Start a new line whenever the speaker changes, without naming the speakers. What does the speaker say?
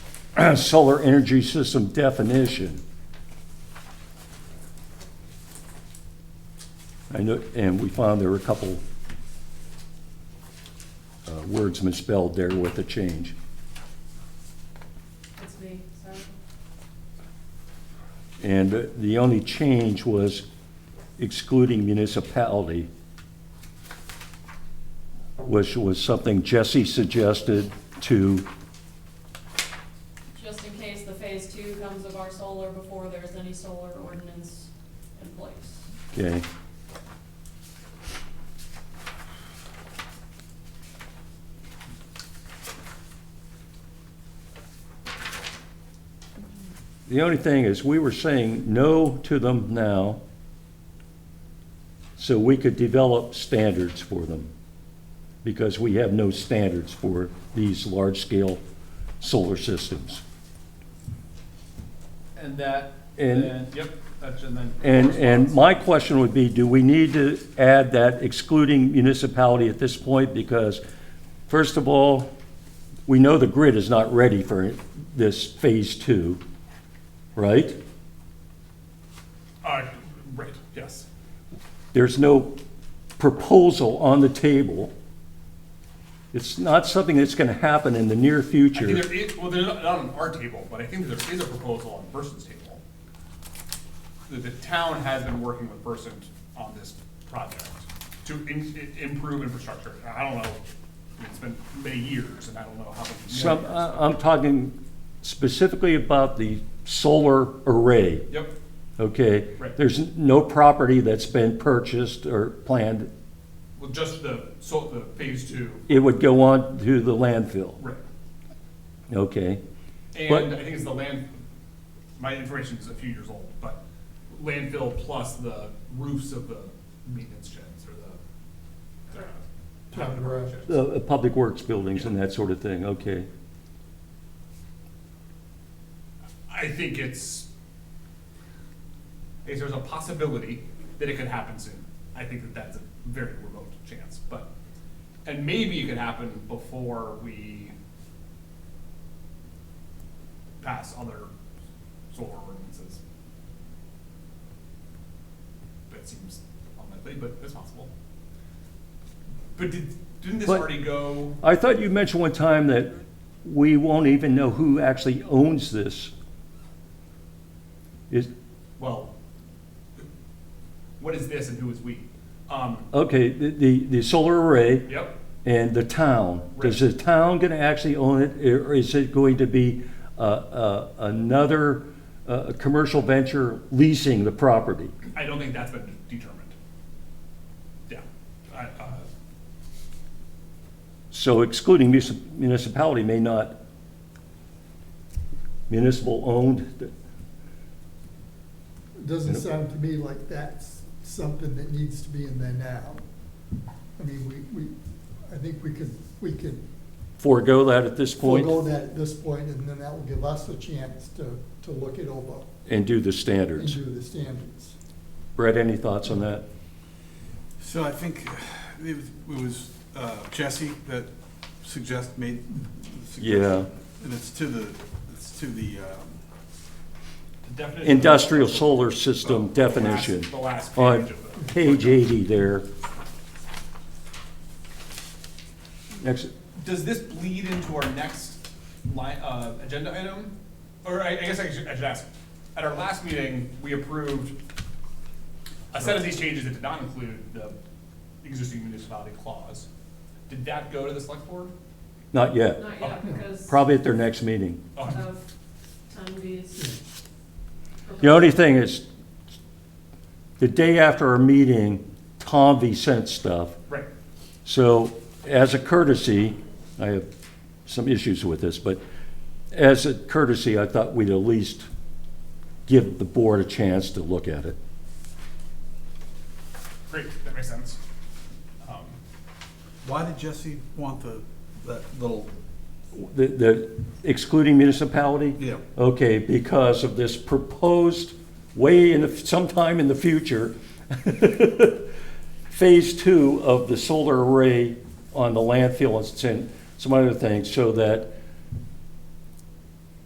solar energy system definition. I know, and we found there were a couple uh, words misspelled there with the change.
It's me, sorry.
And the only change was excluding municipality, which was something Jesse suggested to,
Just in case the phase two comes of our solar before there's any solar ordinance in place.
okay, The only thing is, we were saying no to them now, so we could develop standards for them, because we have no standards for these large-scale solar systems.
And that,
And-
and, yep, that's in the.
And, and
correspondence.
my question would be, do we need to add that excluding municipality at this point? Because, first of all, we know the grid is not ready for this phase two, right?
Uh, right, yes.
There's no proposal on the table. It's not something that's gonna happen in the near
I think
future.
there is, well, they're not not on our table, but I think there is a proposal on Versant's table. The, the town has been working with Versant on this project to in, i- improve infrastructure. I don't know, I mean, it's been many years and I don't know how many.
Some, uh,
years.
I- I'm talking specifically about the solar array.
Yep,
okay?
Right.
There's n- no property that's been purchased or planned.
well, just the, so the phase two,
It would go on to the landfill,
right.
okay? But-
And I think it's the land, my information is a few years old, but landfill plus the roofs of the maintenance sheds or the. uh,
Top of the garage.
sheds.
Uh, uh, Public Works buildings and that sort of thing, okay?
I think it's, I guess there's a possibility that it could happen soon. I think that that's a very remote chance, but, and maybe it could happen before we pass other solar ordinances. That seems unlikely, but it's possible. But did, didn't this
But-
already go?
I thought you mentioned one time that we won't even know who actually owns this. Is,
well, what is this and who is we? Um,
okay, the, the, the solar array
yep,
and the town. Is the town gonna actually own it, or is it going to be, uh, uh, another, uh, commercial venture leasing the property?
I don't think that's been determined. Yeah, I, uh,
So excluding munici- municipality may not, municipal-owned,
Doesn't sound to me like that's something that needs to be in there now. I mean, we, we, I think we could, we could
forego that at this
forego
point
that at this point, and then that will give us a chance to, to look it over
and do the
and
standards.
do the standards.
Brett, any thoughts on that?
So I think it was- it was uh, Jesse that suggest, made the
Yeah.
suggestion. And it's to the, it's to the, um,
the definition.
Industrial solar system
The last-
definition
The last
on
page of the.
page 80 there. Next,
Does this bleed into our next line, uh, agenda item? Or I, I guess I should, I should ask, at our last meeting, we approved a set of these changes that did not include the existing municipality clause. Did that go to the select board?
not yet,
Not yet, because
probably at their next meeting.
Oh.
of ten B's.
The only thing is, the day after our meeting, Tom V sent stuff.
Right.
So, as a courtesy, I have some issues with this, but as a courtesy, I thought we'd at least give the board a chance to look at it.
Great, that makes sense. Um,
why did Jesse want the, that little,
The- The excluding municipality?
Yeah.
Okay, because of this proposed way in, the sometime in the future, phase two of the solar array on the landfill and some- some other things, so that